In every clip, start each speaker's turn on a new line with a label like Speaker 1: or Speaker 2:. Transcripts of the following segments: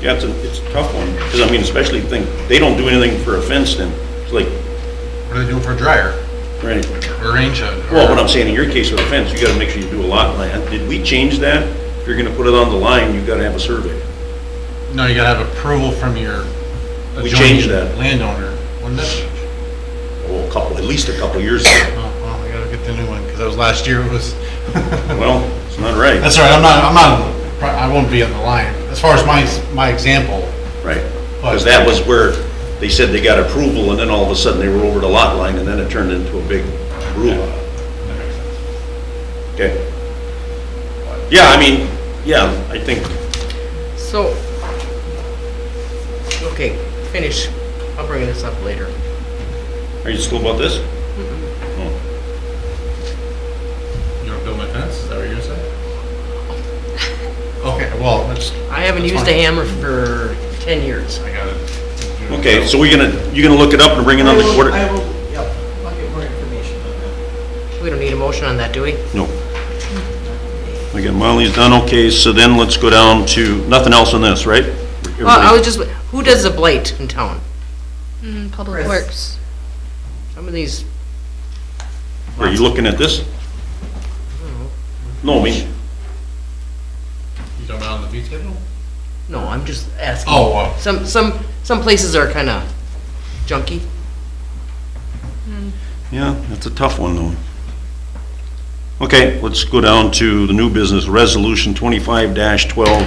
Speaker 1: Yeah, it's a, it's a tough one, because I mean, especially think, they don't do anything for a fence then, it's like,
Speaker 2: What do they do for a dryer
Speaker 1: right?
Speaker 2: or rain shed? or-
Speaker 1: Well, what I'm saying in your case with a fence, you gotta make sure you do a lot line. Did we change that? If you're gonna put it on the line, you gotta have a survey.
Speaker 2: No, you gotta have approval from your
Speaker 1: We changed
Speaker 2: adjoining
Speaker 1: that.
Speaker 2: landowner. When did that change?
Speaker 1: Oh, a couple, at least a couple years ago.
Speaker 2: Oh, well, I gotta get the new one, because that was last year, it was.
Speaker 1: Well, it's not right,
Speaker 2: That's all right, I'm not, I'm not, I won't be on the line, as far as my, my example.
Speaker 1: right? Because that was where they said they got approval, and then all of a sudden they were over the lot line, and then it turned into a big rule.
Speaker 2: That makes sense.
Speaker 1: Okay. Yeah, I mean, yeah, I think,
Speaker 3: So, okay, finish. I'll bring this up later.
Speaker 1: are you still about this? Oh.
Speaker 2: You wanna build my fence, is that what you're gonna say? Okay, well, that's,
Speaker 3: I haven't used a hammer for 10 years.
Speaker 2: I gotta. do it.
Speaker 1: Okay, so we're gonna, you're gonna look it up and bring it on the
Speaker 4: I will-
Speaker 1: quarter?
Speaker 4: I will, yep, I'll get more information on that.
Speaker 3: We don't need a motion on that, do we?
Speaker 1: No. Again, Molly's done okay, so then let's go down to, nothing else on this, right?
Speaker 3: Well, Uh, I was just, who does the blight in town?
Speaker 5: Mm, Public
Speaker 4: Chris.
Speaker 5: Works.
Speaker 3: Some of these,
Speaker 1: Are you looking at this? No, I mean,
Speaker 2: You don't know on the fee schedule?
Speaker 3: no, I'm just asking.
Speaker 2: Oh, uh,
Speaker 3: Some, some, some places are kind of junky.
Speaker 1: yeah, that's a tough one, though. Okay, let's go down to the new business, resolution twenty-five twelve,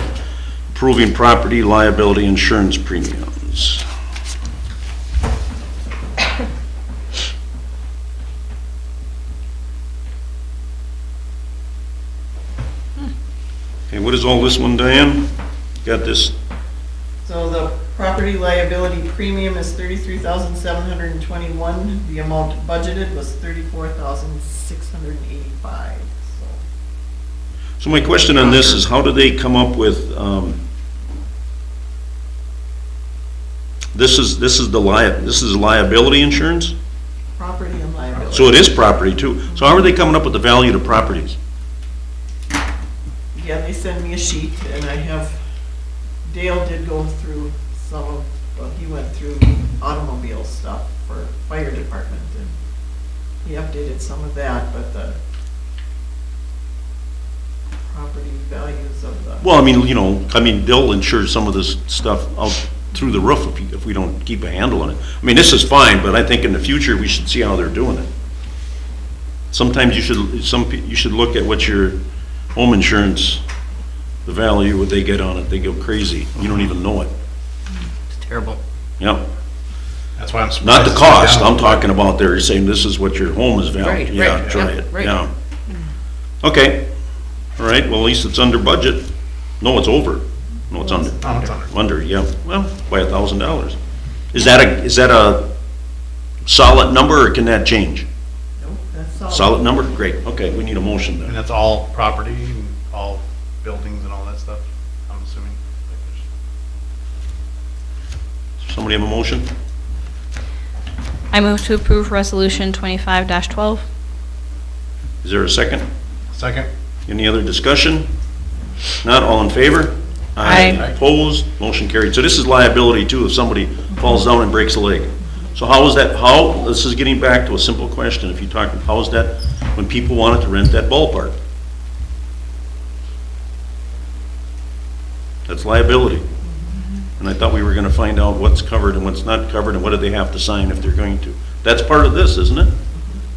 Speaker 1: approving property liability insurance premiums. Okay, what is all this one, Diane? Got this,
Speaker 4: So the property liability premium is thirty-three thousand seven hundred and twenty-one. The amount budgeted was thirty-four thousand six hundred and eighty-five, so.
Speaker 1: so my question on this is, how do they come up with, um, this is, this is the lia, this is liability insurance?
Speaker 4: Property and liability.
Speaker 1: So it is property too. So how are they coming up with the value to properties?
Speaker 4: Yeah, they send me a sheet and I have, Dale did go through some of, well, he went through automobile stuff for fire department and he updated some of that, but the property values of the,
Speaker 1: Well, I mean, you know, I mean, they'll insure some of this stuff out through the roof if, you- if we don't keep a handle on it. I mean, this is fine, but I think in the future, we should see how they're doing it. Sometimes you should, some, pe- you should look at what your home insurance, the value, what they get on it, they go crazy, you don't even know it.
Speaker 3: It's terrible.
Speaker 1: Yep,
Speaker 2: that's why I'm
Speaker 1: not
Speaker 2: surprised.
Speaker 1: the
Speaker 2: it's not
Speaker 1: cost,
Speaker 2: down.
Speaker 1: I'm talking about they're saying this is what your home is
Speaker 3: Right,
Speaker 1: valued.
Speaker 3: right,
Speaker 1: Yeah, try
Speaker 3: yep,
Speaker 1: it,
Speaker 3: right.
Speaker 1: yeah. Okay, all right, well, at least it's under budget. No, it's over, no, it's under.
Speaker 2: Oh, it's under.
Speaker 1: Under, yeah, well, by a thousand dollars. Is that a, is that a solid number, or can that change?
Speaker 4: nope, that's all.
Speaker 1: Solid number? Great, okay, we need a motion
Speaker 2: And
Speaker 1: then.
Speaker 2: that's all property and all buildings and all that stuff, I'm assuming. Like, there's-
Speaker 1: Somebody have a motion?
Speaker 5: I move to approve Resolution 25-12.
Speaker 1: Is there a second?
Speaker 2: Second?
Speaker 1: Any other discussion? Not all in favor?
Speaker 5: Aye.
Speaker 1: Opposed? Motion carried. So this is liability too, if somebody falls down and breaks a leg. So how is that, how, this is getting back to a simple question, if you talk, how is that, when people wanted to rent that ballpark? That's liability. And I thought we were gonna find out what's covered and what's not covered, and what do they have to sign if they're going to. That's part of this, isn't it?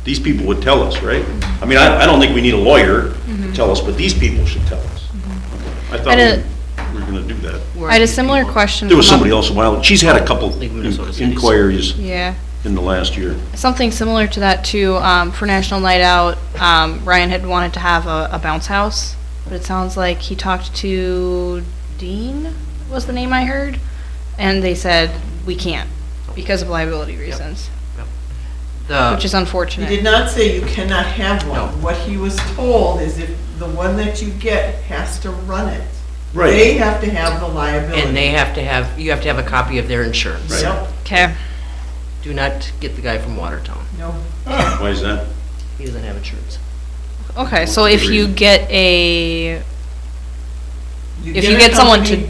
Speaker 1: These people would tell us, right? I mean, I, I don't think we need a lawyer to tell us, but these people should tell us. I thought
Speaker 5: I did-
Speaker 1: we were gonna do that.
Speaker 5: I had a similar question.
Speaker 1: There was
Speaker 5: come up-
Speaker 1: somebody else a while, she's had a couple
Speaker 3: Leave Minnesota cities.
Speaker 1: inquiries
Speaker 5: Yeah,
Speaker 1: in the last year.
Speaker 5: something similar to that too, um, for National Night Out, um, Ryan had wanted to have a, a bounce house, but it sounds like he talked to Dean, was the name I heard, and they said, we can't, because of liability reasons, which
Speaker 3: The,
Speaker 5: is
Speaker 4: He
Speaker 5: unfortunate.
Speaker 4: did not say you cannot have
Speaker 3: No.
Speaker 4: one. What he was told is if the one that you get has to run it.
Speaker 1: Right.
Speaker 4: They have to have the liability.
Speaker 3: and they have to have, you have to have a copy of their insurance.
Speaker 4: Yep,
Speaker 5: Okay,
Speaker 3: Do not get the guy from Watertown.
Speaker 4: no,
Speaker 1: Why is that?
Speaker 3: He doesn't have insurance.
Speaker 5: okay, so if you
Speaker 1: Agreed.
Speaker 5: get a
Speaker 4: You
Speaker 5: If you
Speaker 4: a
Speaker 5: get someone
Speaker 4: company-
Speaker 5: to